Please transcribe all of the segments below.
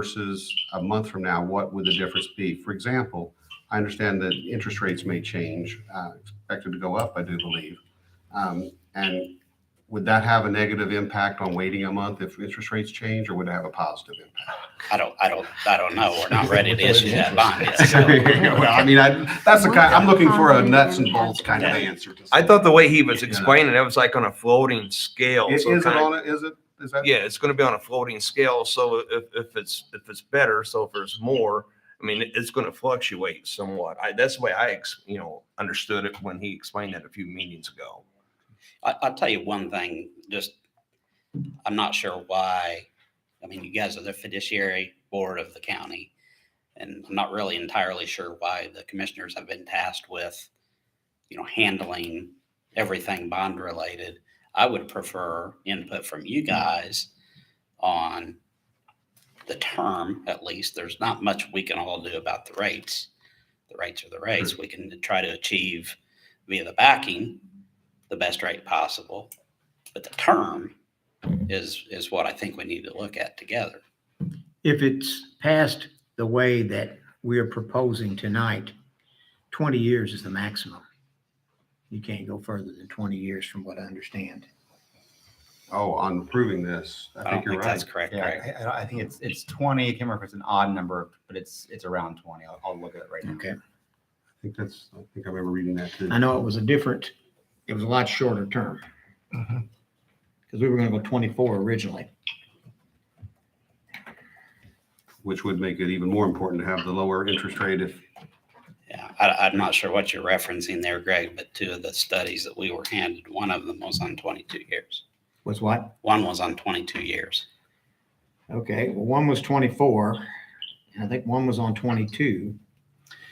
versus a month from now, what would the difference be? For example, I understand that interest rates may change, uh, expected to go up, I do believe. Um, And would that have a negative impact on waiting a month if interest rates change, or would it have a positive impact? I don't, I don't, I don't know. We're not ready to issue that bond yet. so. Well, I mean, I, that's the kind, I'm looking for a nuts and bolts kind of answer. to- I thought the way he was explaining it was like on a floating scale. Is so is it kinda- on, a- is it, is that? Yeah, it's gonna be on a floating scale, so if, if it's, if it's better, so if there's more, I mean, it's gonna fluctuate somewhat. I, that's the way I, ex- you know, understood it when he explained that a few meetings ago. I, I'll tell you one thing, just, I'm not sure why. I mean, you guys are the fiduciary board of the county. And I'm not really entirely sure why the commissioners have been tasked with, you know, handling everything bond related. I would prefer input from you guys on the term, at least. There's not much we can all do about the rates. The rates are the rates. We can try to achieve via the backing, the best rate possible. But the term is, is what I think we need to look at together. If it's passed the way that we are proposing tonight, 20 years is the maximum. You can't go further than 20 years from what I understand. Oh, on approving this, I I don't think you're think that's right. correct, Yeah, Greg. I- I, don't- I think it's, it's twenty, I can't remember if it's an odd number, but it's, it's around twenty, I'll, I'll look at it right now. Okay. I think that's, I think I remember reading that too. I know it was a different, it was a lot shorter term. Because we were going to go 24 originally. which would make it even more important to have the lower interest rate if, Yeah, I, I'm not sure what you're referencing there, Greg, but two of the studies that we were handed, one of them was on 22 years. Was what? One was on 22 years. Okay, well, one was 24, and I think one was on 22.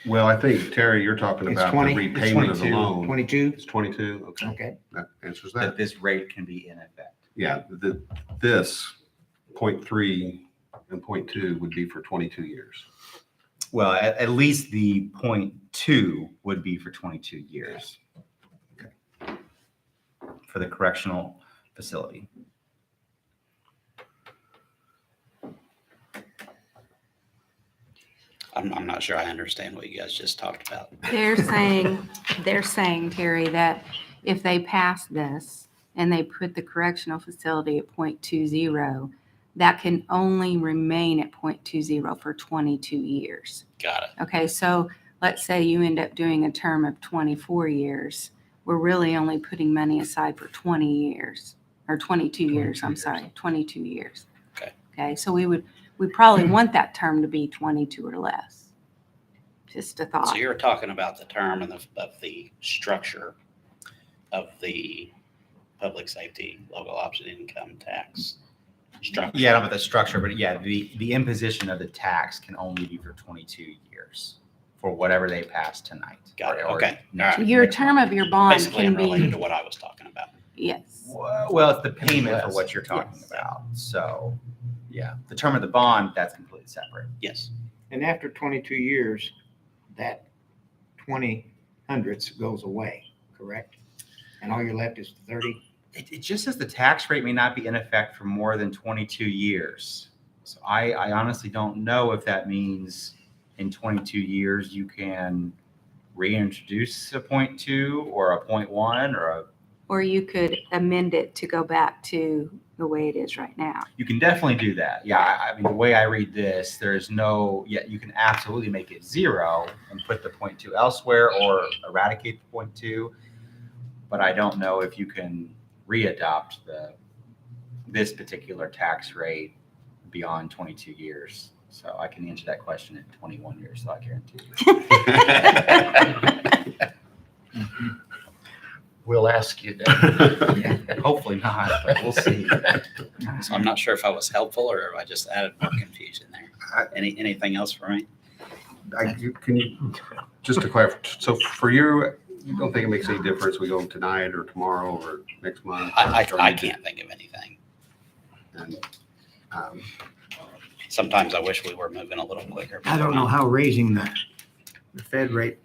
well, I think, Terry, you're talking It's about the 20 it's repayment of the 22, loan. 22? It's twenty-two, okay, Okay, that answers That that. this rate can be in effect. Yeah, the, this, point three and point two would be for twenty-two years. Well, at, at least the point two would be for twenty-two years. For the correctional facility. I'm, I'm not sure I understand what you guys just talked about. They're saying, they're saying, Terry, that if they pass this and they put the correctional facility at .20, that can only remain at .20 for twenty-two years. Got it. Okay, so let's say you end up doing a term of twenty-four years. We're really only putting money aside for twenty years, or twenty-two years, I'm sorry, twenty-two years. Okay. Okay, so we would, we probably want that term to be twenty-two or less. Just a thought. So you're talking about the term and the, of the structure of the public safety local option income tax structure. Yeah, I don't know about the structure, but yeah, the, the imposition of the tax can only be for twenty-two years for whatever they pass tonight. Got it, or- or okay, next- Your next term month. of your bond Basically, can unrelated be, to what I was talking about. yes. Well, well, it's the payment for Yes. what you're talking Yes. about. So, yeah, the term of the bond, that's completely separate. Yes. and after 22 years, that 20 hundredths goes away, correct? And all you're left is 30? It, it just says the tax rate may not be in effect for more than 22 years. So I, I honestly don't know if that means in 22 years you can reintroduce a point two or a point one or a, Or you could amend it to go back to the way it is right now. you can definitely do that. Yeah, I, I mean, the way I read this, there is no, yet you can absolutely make it zero and put the point two elsewhere or eradicate the point two. But I don't know if you can readopt the, this particular tax rate beyond twenty-two years. So I can answer that question in twenty-one years, so I guarantee you. We'll ask you that. Hopefully not, but we'll see. So I'm not sure if I was helpful or if I just added more confusion there. Any, anything else for me? I, you- can you, just to clarify, so for you, you don't think it makes any difference, we go tonight or tomorrow or next month? or- I, or I, I you can't think of anything. can- um, Sometimes I wish we were moving a little quicker. but I don't we're know not. how raising the, the Fed rate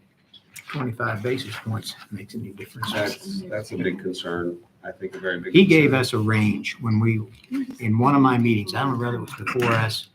25 basis points makes any difference. That's, that's a big concern, I think a very big. He gave concern. us a range when we, in one of my meetings, I don't know whether it was before us